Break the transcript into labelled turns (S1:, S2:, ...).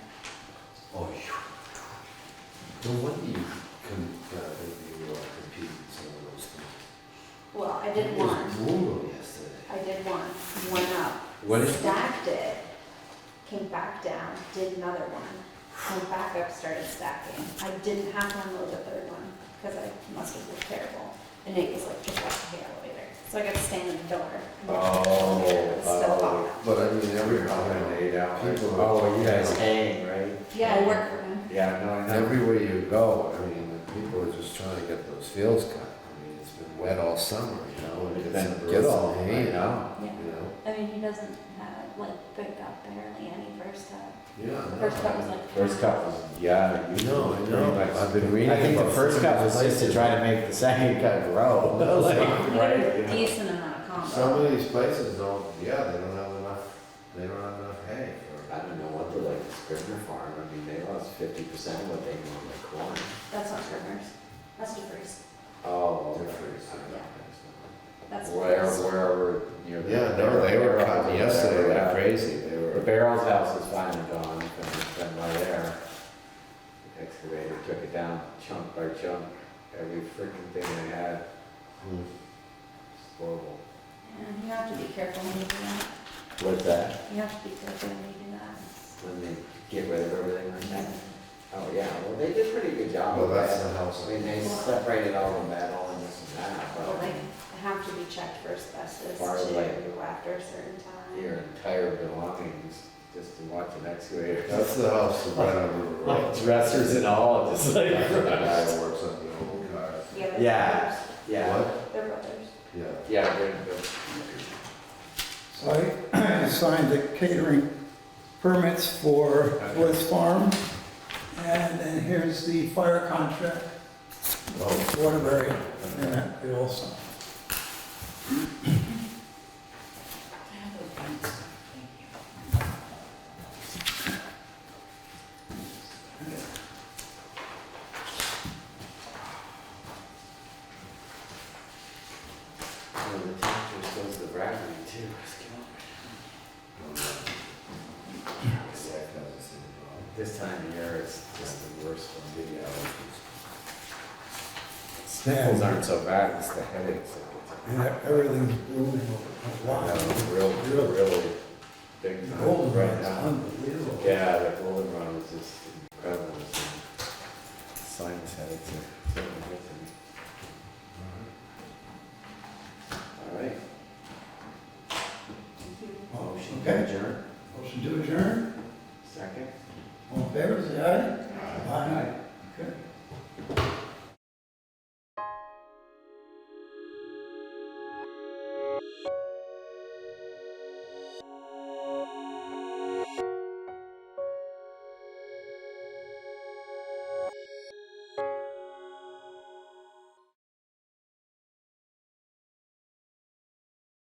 S1: No wonder Oh, you can, uh, you uh, compete in some of those things.
S2: Well, I did
S1: It was
S2: one,
S1: brutal yesterday.
S2: I did one, went up,
S1: What is,
S2: stacked it, came back down, did another one, went back up, started stacking. I didn't have to unload the third one, because I must have looked terrible, and it was like just off the elevator. So I got to stand in the door. and look at the
S1: oh,
S2: elevator, it's still
S1: oh,
S2: locked.
S1: but I mean, every time,
S3: Lemonade out.
S1: People-
S3: Oh, you guys hang, right?
S2: Yeah, I work for him.
S3: Yeah, no, I know.
S1: everywhere you go, I mean, the people are just trying to get those fields cut. I mean, it's been wet all summer, you know, and
S3: It's
S1: it's,
S3: been
S1: get all
S3: brutal.
S1: hay out,
S2: Yeah.
S1: you know?
S2: I mean, he doesn't have, like, pick up barely any first cut.
S1: Yeah. I know.
S2: First cut was like.
S3: First cup was, yeah. you-
S1: No, I
S3: pretty
S1: know.
S3: much-
S1: I've been reading
S3: I think the
S1: about
S3: first
S1: some of
S3: cup
S1: the
S3: was just to
S1: places.
S3: try to make the second cup grow.
S1: No, it's
S3: Like,
S1: not.
S2: You got a decent amount of
S1: Some
S2: combo.
S1: of these places don't, yeah, they don't have enough, they don't have enough hay for.
S4: I don't know what they're like, the Scrivener farm, I mean, they lost fifty percent of what they normally corn.
S2: That's not Scrivener's, that's DeFreeze.
S4: Oh.
S1: okay.
S2: That's
S3: Where,
S2: DeFreeze.
S3: wherever, you know.
S1: Yeah, no, they were cutting yesterday
S3: Yeah.
S1: like crazy, they
S3: The
S1: were.
S3: Barrels House is finally gone, and it's been right there. The Excavator took it down chunk by chunk, every freaking thing they had, it's
S1: Hmm.
S3: horrible.
S2: And you have to be careful when you do that.
S3: What's that?
S2: You have to be careful when you do that.
S3: When they get rid of everything like that? Oh, yeah, well, they did a pretty good job
S1: Well,
S3: of
S1: that's the
S3: that.
S1: house.
S3: I mean, they separated all the metal and this and that,
S2: Well,
S3: but
S2: they have to be checked for asbestos
S3: Far away.
S2: too after a certain time.
S3: your entire belongings, just to watch an excavator.
S1: That's the house that ran over the
S3: Like
S1: road.
S3: dressers and all, just like.
S1: That's the guy that works on the old cars.
S2: Yeah, but
S3: Yeah.
S2: they're
S3: Yeah,
S1: What?
S2: brothers. They're brothers.
S1: Yeah.
S3: yeah, they're- they're-
S5: So I signed the catering permits for Woods Farm, and then here's the fire contract,
S1: Oh,
S5: with Waterbury, and that we also.
S3: oh, the temperature shows the gravity too, it's killing me. It's like,
S1: that doesn't seem wrong.
S3: This time of year, it's just the worst one, you know. Sniffles aren't so bad, it's the headaches. that
S5: And that everything's blooming over.
S3: get- I
S5: Wow.
S3: have a Real, real, really big.
S5: The
S3: time
S5: golden
S3: right
S5: rod's
S3: now.
S5: unbelievable.
S3: Yeah, the golden rod is just incredible. It's a Sinus headaches are certainly good to me. All right, motion to
S5: Okay.
S3: adjourn,
S5: Motion to adjourn,
S3: second.
S5: all in favor, say aye. Aye. Okay.